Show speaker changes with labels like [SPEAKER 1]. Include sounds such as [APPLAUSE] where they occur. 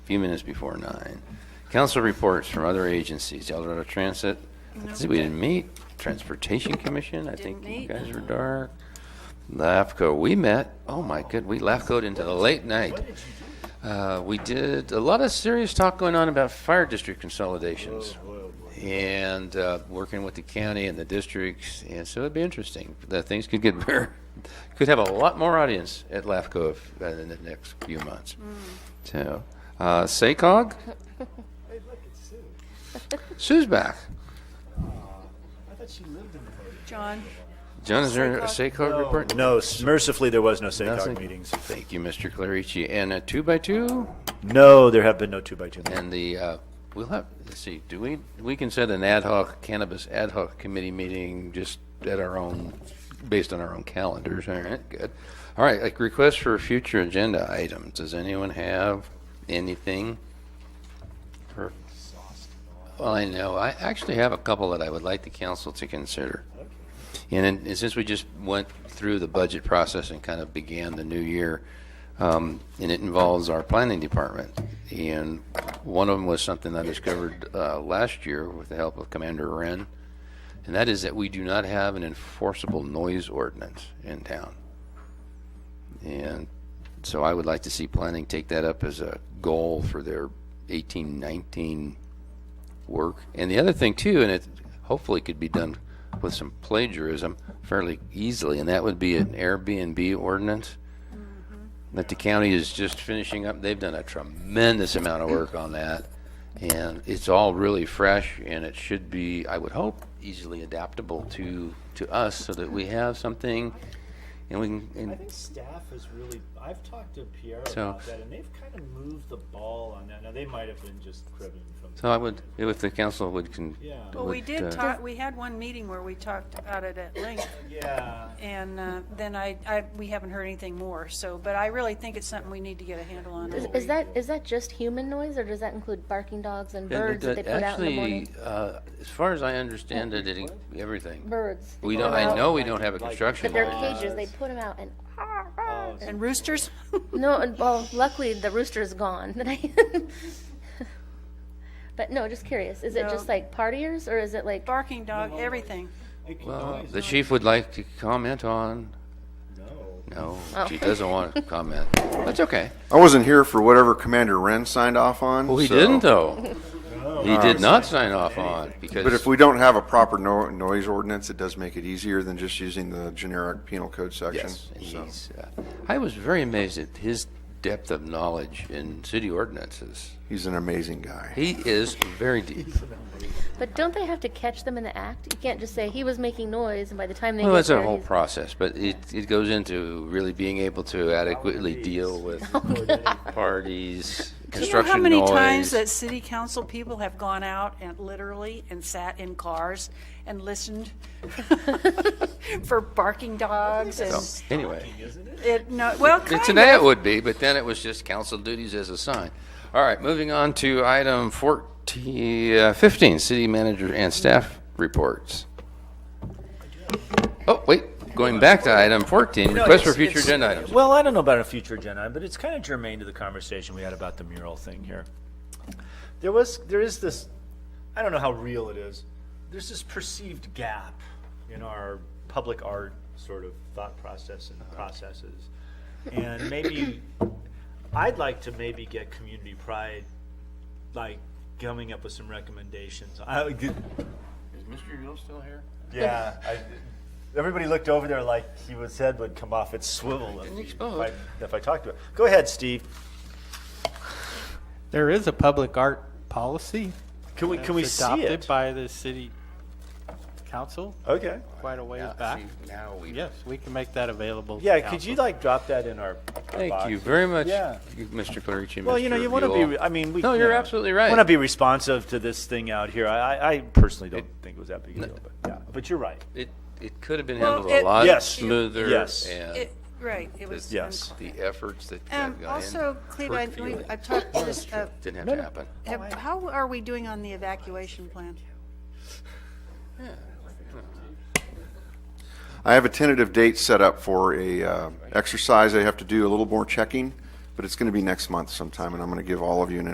[SPEAKER 1] few minutes before nine. Council reports from other agencies, Eldorado Transit, I see we didn't meet, Transportation Commission, I think
[SPEAKER 2] Didn't
[SPEAKER 1] you
[SPEAKER 2] meet.
[SPEAKER 1] guys were dark. LAFCO, we met, oh my good, we LAFCO'd into the late night. Uh, we did a lot of serious talk going on about fire district consolidations and uh, working with the county and the districts, and so it'd be interesting. That things could get [LAUGHS] better, could have a lot more audience at LAFCO if, uh, in the next few months. So, uh, SACOG? Sue's back.
[SPEAKER 2] John,
[SPEAKER 1] John, is there a SACOG report?
[SPEAKER 3] No, s- mercifully, there was no
[SPEAKER 1] Nothing.
[SPEAKER 3] SACOG meetings.
[SPEAKER 1] Thank you, Mr. Clarici. And a two-by-two?
[SPEAKER 3] No, there have been no two-by-two meetings.
[SPEAKER 1] And the, uh, we'll have, let's see, do we, we can set an ad hoc cannabis ad hoc committee meeting just at our own, based on our own calendars, all right, good. All right, like requests for future agenda items, does anyone have anything? for- Well, I know, I actually have a couple that I would like the council to consider. And then, and since we just went through the budget process and kind of began the new year, um, and it involves our planning department. And one of them was something I discovered uh, last year with the help of Commander Wren, and that is that we do not have an enforceable noise ordinance in town. And so I would like to see planning take that up as a goal for their eighteen nineteen work. And the other thing too, and it hopefully could be done with some plagiarism fairly easily, and that would be an Airbnb ordinance that the county is just finishing up. They've done a tremendous amount of work on that. And it's all really fresh and it should be, I would hope, easily adaptable to, to us so that we have something and we can,
[SPEAKER 4] I
[SPEAKER 1] and
[SPEAKER 4] think staff has really. I've talked to Pierre
[SPEAKER 1] So-
[SPEAKER 4] about that, and they've kind of moved the ball on that. Now they might have been just cribbing from.
[SPEAKER 1] so I would, if the council would con.
[SPEAKER 4] Yeah.
[SPEAKER 2] well, we
[SPEAKER 1] would,
[SPEAKER 2] did
[SPEAKER 1] uh,
[SPEAKER 2] talk, we had one meeting where we talked about it at length,
[SPEAKER 4] Yeah.
[SPEAKER 2] and uh, then I, I, we haven't heard anything more, so, but I really think it's something we need to get a handle on.
[SPEAKER 5] Is, is that is that just human noise, or does that include barking dogs and birds that they put out in the
[SPEAKER 1] Actually,
[SPEAKER 5] morning?
[SPEAKER 1] uh, as far as I understand it, it, everything.
[SPEAKER 5] Birds.
[SPEAKER 1] We
[SPEAKER 5] They
[SPEAKER 1] don't,
[SPEAKER 5] put 'em
[SPEAKER 1] I
[SPEAKER 5] out,
[SPEAKER 1] know we don't have a construction
[SPEAKER 5] But they're
[SPEAKER 1] law.
[SPEAKER 5] cages. They put them out, and
[SPEAKER 4] Oh, so
[SPEAKER 2] And roosters? [LAUGHS]
[SPEAKER 5] no. And, well, luckily the rooster is gone. [LAUGHS] But, I, but no, just curious. Is it just
[SPEAKER 2] No.
[SPEAKER 5] like partiers, or is it like?
[SPEAKER 2] Barking dog,
[SPEAKER 1] uh,
[SPEAKER 2] everything.
[SPEAKER 4] it can
[SPEAKER 6] Oh,
[SPEAKER 1] Well,
[SPEAKER 4] always-
[SPEAKER 1] the chief would like to comment on,
[SPEAKER 4] no.
[SPEAKER 1] no,
[SPEAKER 5] Oh.
[SPEAKER 1] she doesn't want
[SPEAKER 5] [LAUGHS]
[SPEAKER 1] to comment. That's okay.
[SPEAKER 6] I wasn't here for whatever Commander Wren signed off on.
[SPEAKER 1] Well, he
[SPEAKER 6] so-
[SPEAKER 1] didn't though. He did not sign off on because.
[SPEAKER 6] Oh. But if we don't have a proper no- noise ordinance, it does make it easier than just using the generic penal code section.
[SPEAKER 1] Yes, and
[SPEAKER 6] So-
[SPEAKER 1] he's, uh, I was very amazed at his depth of knowledge in city ordinances.
[SPEAKER 6] He's an amazing guy.
[SPEAKER 1] He is very deep.
[SPEAKER 5] But don't they have to catch them in the act? You can't just say he was making noise, and by the time they
[SPEAKER 1] Well,
[SPEAKER 5] get
[SPEAKER 1] that's a
[SPEAKER 5] there,
[SPEAKER 1] whole
[SPEAKER 5] he's-
[SPEAKER 1] process, but it, it goes into really being able to adequately deal with
[SPEAKER 2] [LAUGHS]
[SPEAKER 1] parties,
[SPEAKER 2] Do you know how
[SPEAKER 1] construction
[SPEAKER 2] many times
[SPEAKER 1] noise.
[SPEAKER 2] that city council people have gone out and literally and sat in cars and listened [LAUGHS] for barking dogs and,
[SPEAKER 1] So, Anyway,
[SPEAKER 2] it, no, well,
[SPEAKER 1] it-
[SPEAKER 2] kind of.
[SPEAKER 1] today it would be, but then it was just council duties as assigned. All right, moving on to item 14, uh, 15, city manager and staff reports. Oh, wait, going back to item 14,
[SPEAKER 4] No,
[SPEAKER 1] request for
[SPEAKER 4] it's-
[SPEAKER 1] future
[SPEAKER 4] it's-
[SPEAKER 1] agenda items.
[SPEAKER 4] Well, I don't know about a future agenda, item, but it's kind of germane to the conversation we had about the mural thing here. There was, there is this, I don't know how real it is. There's this perceived gap in our public art sort of thought process
[SPEAKER 1] Uh-huh.
[SPEAKER 4] and processes. And maybe, I'd like to maybe get community pride, like coming up with some recommendations. I, would get-
[SPEAKER 1] Is Mr. Yule still here?
[SPEAKER 4] yeah, I, everybody looked over there like he was head would come off its swivel if,
[SPEAKER 1] Didn't
[SPEAKER 4] he- if
[SPEAKER 1] explode.
[SPEAKER 4] I, if I talked to him. Go ahead, Steve.
[SPEAKER 7] There is a public art policy.
[SPEAKER 4] Can we can we
[SPEAKER 7] that's
[SPEAKER 4] see
[SPEAKER 7] adopted
[SPEAKER 4] it?
[SPEAKER 7] by the city council
[SPEAKER 4] okay.
[SPEAKER 7] quite a
[SPEAKER 4] Uh,
[SPEAKER 7] ways back.
[SPEAKER 1] Now we
[SPEAKER 7] Yes, we can make that available. to
[SPEAKER 4] Yeah. Could
[SPEAKER 7] council.
[SPEAKER 4] you like drop that in our?
[SPEAKER 1] Thank
[SPEAKER 4] box?
[SPEAKER 1] you very much,
[SPEAKER 4] Yeah.
[SPEAKER 1] Mr. Clarici. and
[SPEAKER 4] Well, you know,
[SPEAKER 1] Mr.
[SPEAKER 4] you want to
[SPEAKER 1] Buell.
[SPEAKER 4] be. I mean, we.
[SPEAKER 1] No,
[SPEAKER 4] you
[SPEAKER 1] you're
[SPEAKER 4] know,
[SPEAKER 1] absolutely right.
[SPEAKER 4] Want to be responsive to this thing out here? I, I, I personally don't think it was that big a deal, but yeah. But you're right.
[SPEAKER 1] It, it could have been
[SPEAKER 2] Well,
[SPEAKER 1] handled
[SPEAKER 2] it-
[SPEAKER 1] a lot
[SPEAKER 4] Yes.
[SPEAKER 1] smoother.
[SPEAKER 4] Yes.
[SPEAKER 1] And
[SPEAKER 2] It- Right, it was.
[SPEAKER 4] Yes.
[SPEAKER 1] the efforts that
[SPEAKER 2] Um,
[SPEAKER 1] have gone in.
[SPEAKER 2] also, Cleveland,
[SPEAKER 1] Brookfield,
[SPEAKER 2] we, I've talked to this, uh,
[SPEAKER 1] Didn't have to happen.
[SPEAKER 2] have- how are we doing on the evacuation plan?
[SPEAKER 6] I have a tentative date set up for a uh, exercise. I have to do a little more checking, but it's going to be next month sometime, and I'm going to give all of you an